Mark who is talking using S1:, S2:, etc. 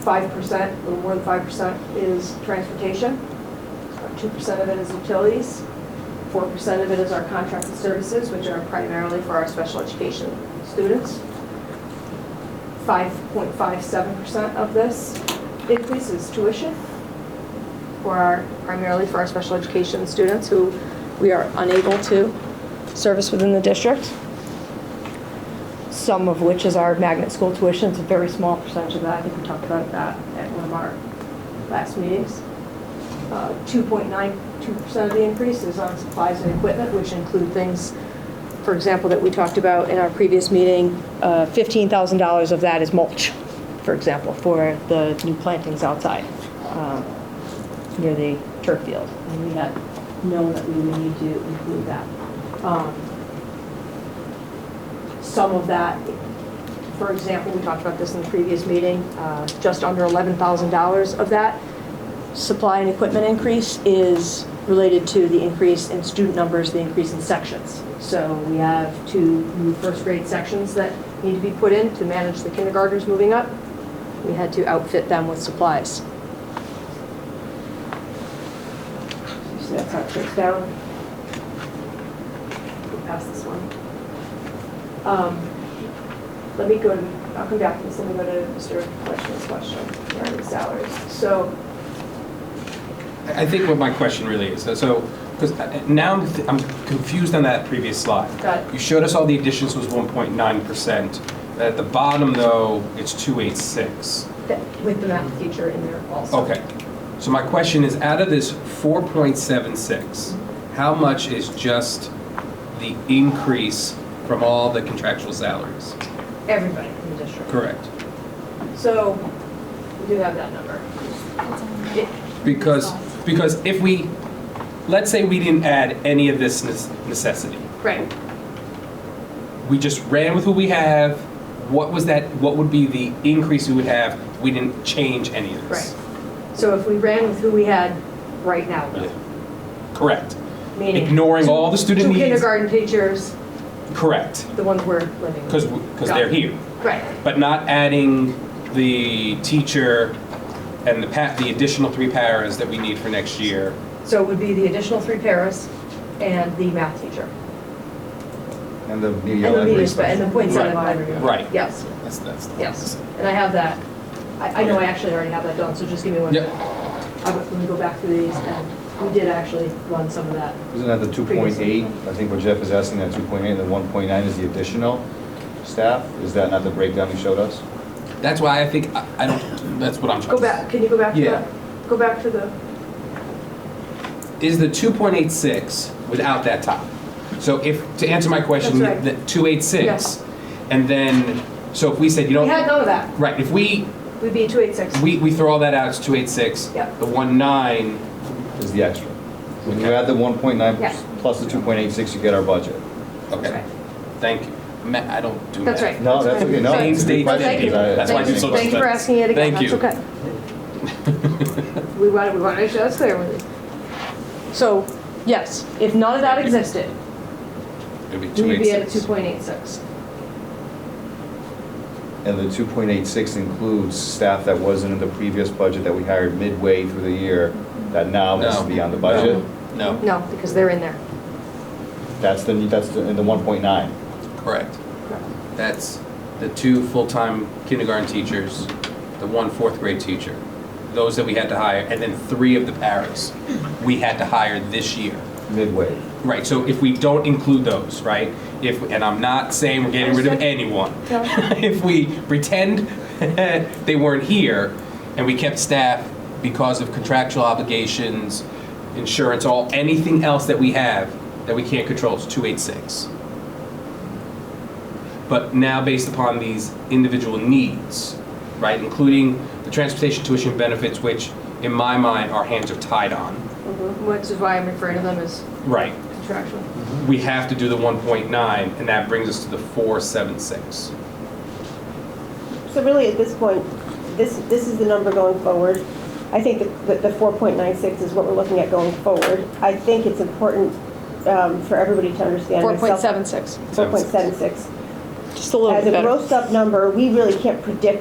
S1: five percent, a little more than five percent is transportation. Two percent of it is utilities. Four percent of it is our contracted services, which are primarily for our special education students. Five point five seven percent of this increase is tuition for our, primarily for our special education students who we are unable to service within the district some of which is our magnet school tuition. It's a very small percentage of that. I think we talked about that at one of our last meetings. Uh, 2.92% of the increase is on supplies and equipment, which include things, for example, that we talked about in our previous meeting. Uh, $15,000 of that is mulch, for example, for the new plantings outside um, near the turf field. And we had known that we would need to include that. Um, some of that, for example, we talked about this in the previous meeting, uh, just under $11,000 of that supply and equipment increase is related to the increase in student numbers, the increase in sections. So we have two new first grade sections that need to be put in to manage the kindergartners moving up. We had to outfit them with supplies. So that's how it breaks down. Pass this one. Um, Let me go, to. I'll come back to this, let me go to Mr. Fleischman's question regarding salaries. So,
S2: I think what my question really is, so, because now I'm th- I'm confused on that previous slide.
S1: Got it.
S2: You showed us all the additions was 1.9%. At the bottom, though, it's 286.
S1: that- with the math teacher in there also.
S2: Okay. So my question is, out of this 4.76, how much is just the increase from all the contractual salaries?
S1: Everybody in the district.
S2: Correct.
S1: So, we do have that number. It-
S2: Because, because if we, let's say we didn't add any of this nes- necessity.
S1: Right,
S2: we just ran with who we have. What was that? What would be the increase we would have? We didn't change any of
S1: right.
S2: this.
S1: So if we ran with who we had right now,
S2: Correct.
S1: meaning.
S2: Ignoring all the student
S1: Two
S2: needs.
S1: kindergarten teachers,
S2: Correct.
S1: the ones we're living
S2: Because
S1: with.
S2: because
S1: Got
S2: they're
S1: it.
S2: here,
S1: Right,
S2: but not adding the teacher and the pa- the additional three paras that we need for next year.
S1: so it would be the additional three paras and the math teacher.
S3: And the media
S1: And the
S3: library
S1: media, spe- and the
S3: special.
S1: points on the
S2: Right.
S1: library.
S2: Right.
S1: Yes.
S2: That's that's.
S1: Yes, and I have that. I, I know I actually already have that done, so just give me one.
S2: Yep.
S1: I'm gonna go back through these, and we did actually run some of that.
S3: Isn't that the 2.8? I think what Jeff is asking, that 2.8, and the 1.9 is the additional staff? Is that not the breakdown you showed us?
S2: That's why I think I, I don't. That's what I'm trying.
S1: Go
S2: to-
S1: back, can you go back to
S2: Yeah.
S1: that? Go back to the,
S2: is the 2.86 without that top. So if, to answer my question,
S1: That's right.
S2: the 286, and then, so if we said you
S1: we had
S2: don't,
S1: none of that.
S2: right, if we,
S1: We'd be two eight six.
S2: we, we throw all that out, it's 286.
S1: Yep.
S2: The 19,
S3: Is the extra? When you add the 1.9
S1: Yeah.
S3: plus the 2.86, you get our budget.
S2: okay, thank you. Ma- I don't do math.
S1: That's right.
S3: No, that's okay, no.
S2: Thanks,
S3: it's a good
S2: Dave.
S3: question,
S2: Thank you.
S3: because I-
S2: That's why I did so much
S1: Thank you for
S2: study.
S1: asking it again,
S2: Thank
S1: that's
S2: you.
S1: okay. We want, we want to make sure that's clear with you. So, yes, if none of that existed,
S2: It'd be
S1: we'd be at
S2: 286.
S1: two point eight six.
S3: And the 2.86 includes staff that wasn't in the previous budget that we hired midway through the year, that now has to
S2: No.
S3: be on the budget?
S2: No,
S1: No, because they're in there.
S3: That's the, that's the and the 1.9.
S2: correct. That's the two full-time kindergarten teachers, the one fourth grade teacher, those that we had to hire, and then three of the paras we had to hire this year.
S3: Midway.
S2: Right, so if we don't include those, right, if, and I'm not saying we're getting rid of anyone.
S1: No.
S2: If we pretend they weren't here and we kept staff because of contractual obligations, insurance, all, anything else that we have that we can't control is two eight six. But now based upon these individual needs, right, including the transportation tuition benefits, which in my mind, our hands are tied on.
S1: Which is why I'm referring to them as
S2: Right,
S1: contractual.
S2: we have to do the 1.9, and that brings us to the 476.
S4: So really, at this point, this, this is the number going forward. I think that- that the 4.96 is what we're looking at going forward. I think it's important um, for everybody to understand. myself-
S1: 4.76,
S4: 4.76.
S1: just a little
S4: As
S1: bit
S4: a
S1: better.
S4: grossed-up number, we really can't predict